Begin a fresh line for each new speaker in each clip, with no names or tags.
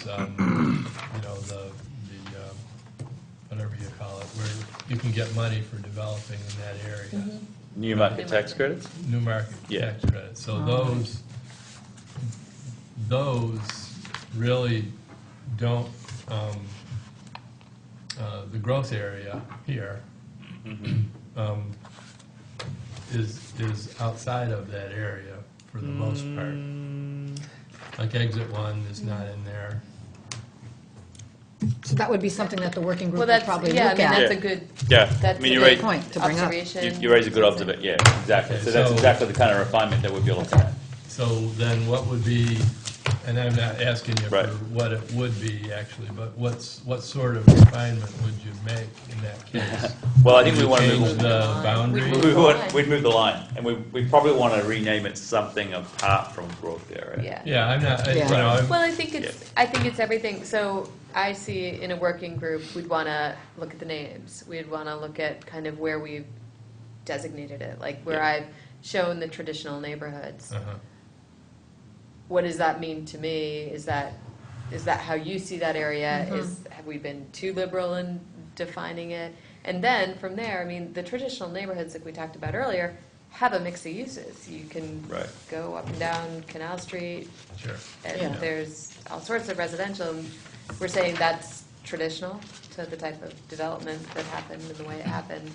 is, um, you know, the, the, um, whatever you call it, where you can get money for developing in that area,
New market tax credits?
new market
Yeah.
tax credits. So those, those really don't, um, uh, the growth area here um, is, is outside of that area for the most part.
Mm.
Like exit one is not in there.
So that would be something that the working group
Well,
would
that's,
probably
yeah, I
look
mean,
at.
that's a good,
Yeah, I
that's a
mean, you
good
raise,
point to bring up.
you
observation.
you raise a good observation, yeah, exactly.
Okay,
So that's
so-
exactly the kind of refinement that we'd be looking at.
So then what would be, and I'm not asking you for
Right.
what it would be actually, but what's, what sort of refinement would you make in that case?
Well, I think we want to
Change
move,
the boundary?
we- we want- we'd move the line, and we, we probably want to rename it something apart from growth area.
Yeah.
Yeah, I'm not, I- you
Yeah.
know, I'm-
Well, I think it's, I think it's everything, so I see in a working group, we'd wanna look at the names, we'd wanna look at kind of where we've designated it, like where
Yeah.
I've shown the traditional neighborhoods.
uh-huh.
What does that mean to me? Is that, is that how you see that area? Is, have we been too liberal in defining it? And then from there, I mean, the traditional neighborhoods, like we talked about earlier, have a mix of uses. You can
Right.
go up and down Canal Street,
sure.
and
Yeah.
there's all sorts of residential. and We're saying that's traditional to the type of development that happened and the way it happened.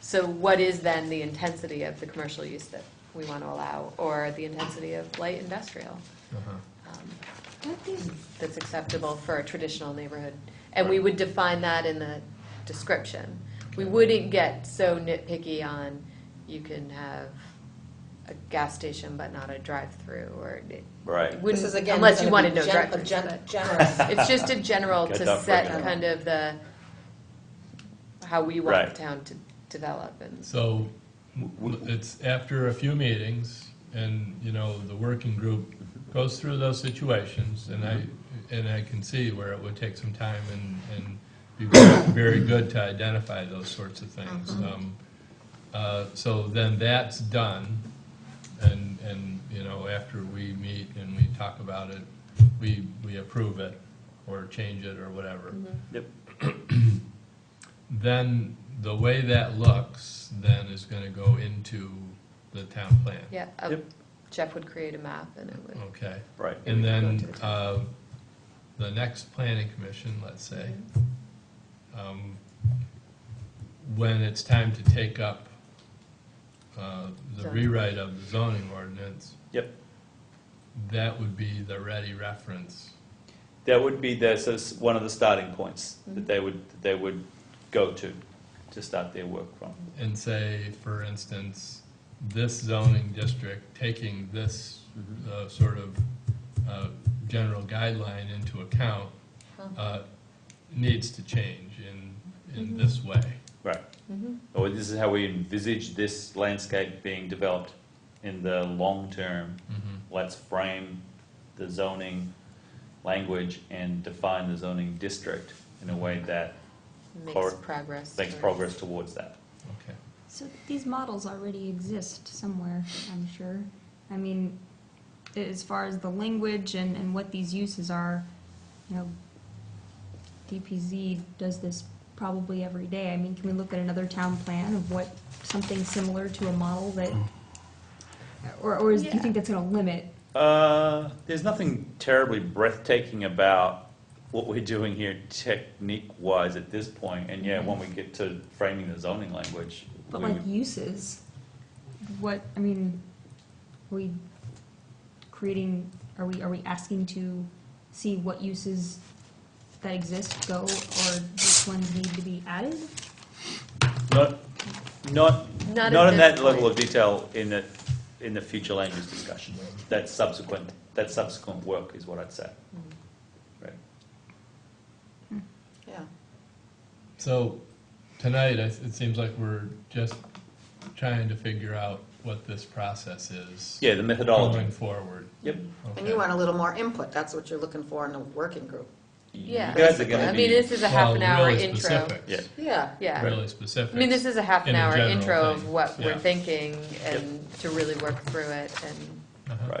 So what is then the intensity of the commercial use that we want to allow, or the intensity of light industrial
Uh-huh.
um, that's acceptable for a traditional neighborhood? And we would define that in the description. We wouldn't get so nitpicky on, you can have a gas station but not a drive-through, or it
Right.
wouldn't-
This is again
unless you
gonna
wanted
be
no
gen-
drive-throughs,
gen-
but-
Generous.
It's just a general
Got
to
that
set
broken down.
kind of the, how we
Right.
want the town to develop and.
So it's after a few meetings and, you know, the working group goes through those situations and I, and I can see where it would take some time and, and be very good to identify those sorts of things. Um, uh, So then that's done and, and, you know, after we meet and we talk about it, we, we approve it or change it or whatever
Yep.
then the way that looks then is gonna go into the town plan.
Yeah, uh,
Yep.
Jeff would create a map and it would,
Okay,
Right.
and
Go
then,
to the
uh, the next planning commission, let's say, um, when it's time to take up, uh, the
Zoning.
rewrite of the zoning ordinance,
Yep.
that would be the ready reference.
That would be their, so it's one of the starting points that they would, that they would go to, to start their work from.
and say, for instance, this zoning district taking this uh, sort of uh, general guideline into account uh, needs to change in, in this way.
Right. Or this is how we envisage this landscape being developed in the long term. Let's frame the zoning language and define the zoning district in a way that
makes
Cor-
progress.
makes
or-
progress towards that.
Okay.
So these models already exist somewhere, I'm sure. I mean, as far as the language and, and what these uses are, you know, DPZ does this probably every day. I mean, can we look at another town plan of what, something similar to a model that, or, or is, do you think that's gonna limit?
Uh, there's nothing terribly breathtaking about what we're doing here technique-wise at this point, and yeah, when we get to framing the zoning language,
But
we
like
would-
uses, what, I mean, we creating, are we, are we asking to see what uses that exist go or which ones need to be added?
not, not,
Not at
not in
this
that level
point.
of detail in the, in the future land use discussion. That's subsequent, that's subsequent work is what I'd say. Right.
Yeah.
So tonight, I- it seems like we're just trying to figure out what this process is
Yeah, the methodology.
going forward.
Yep.
And you
Okay.
want a little more input, that's what you're looking for in a working group.
Yeah.
You guys are gonna
I mean,
be,
this is a half
Well,
an hour
really
intro.
specifics.
yeah,
Yeah.
Yeah.
Really specific.
I mean, this is a half an
in a
hour
general
intro of
thing.
what
Yeah.
we're thinking and to really work through it and
Uh-huh.
right.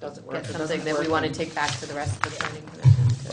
Doesn't work.
get
it
something
doesn't
that we
work.
want to take back to the rest of the planning commission.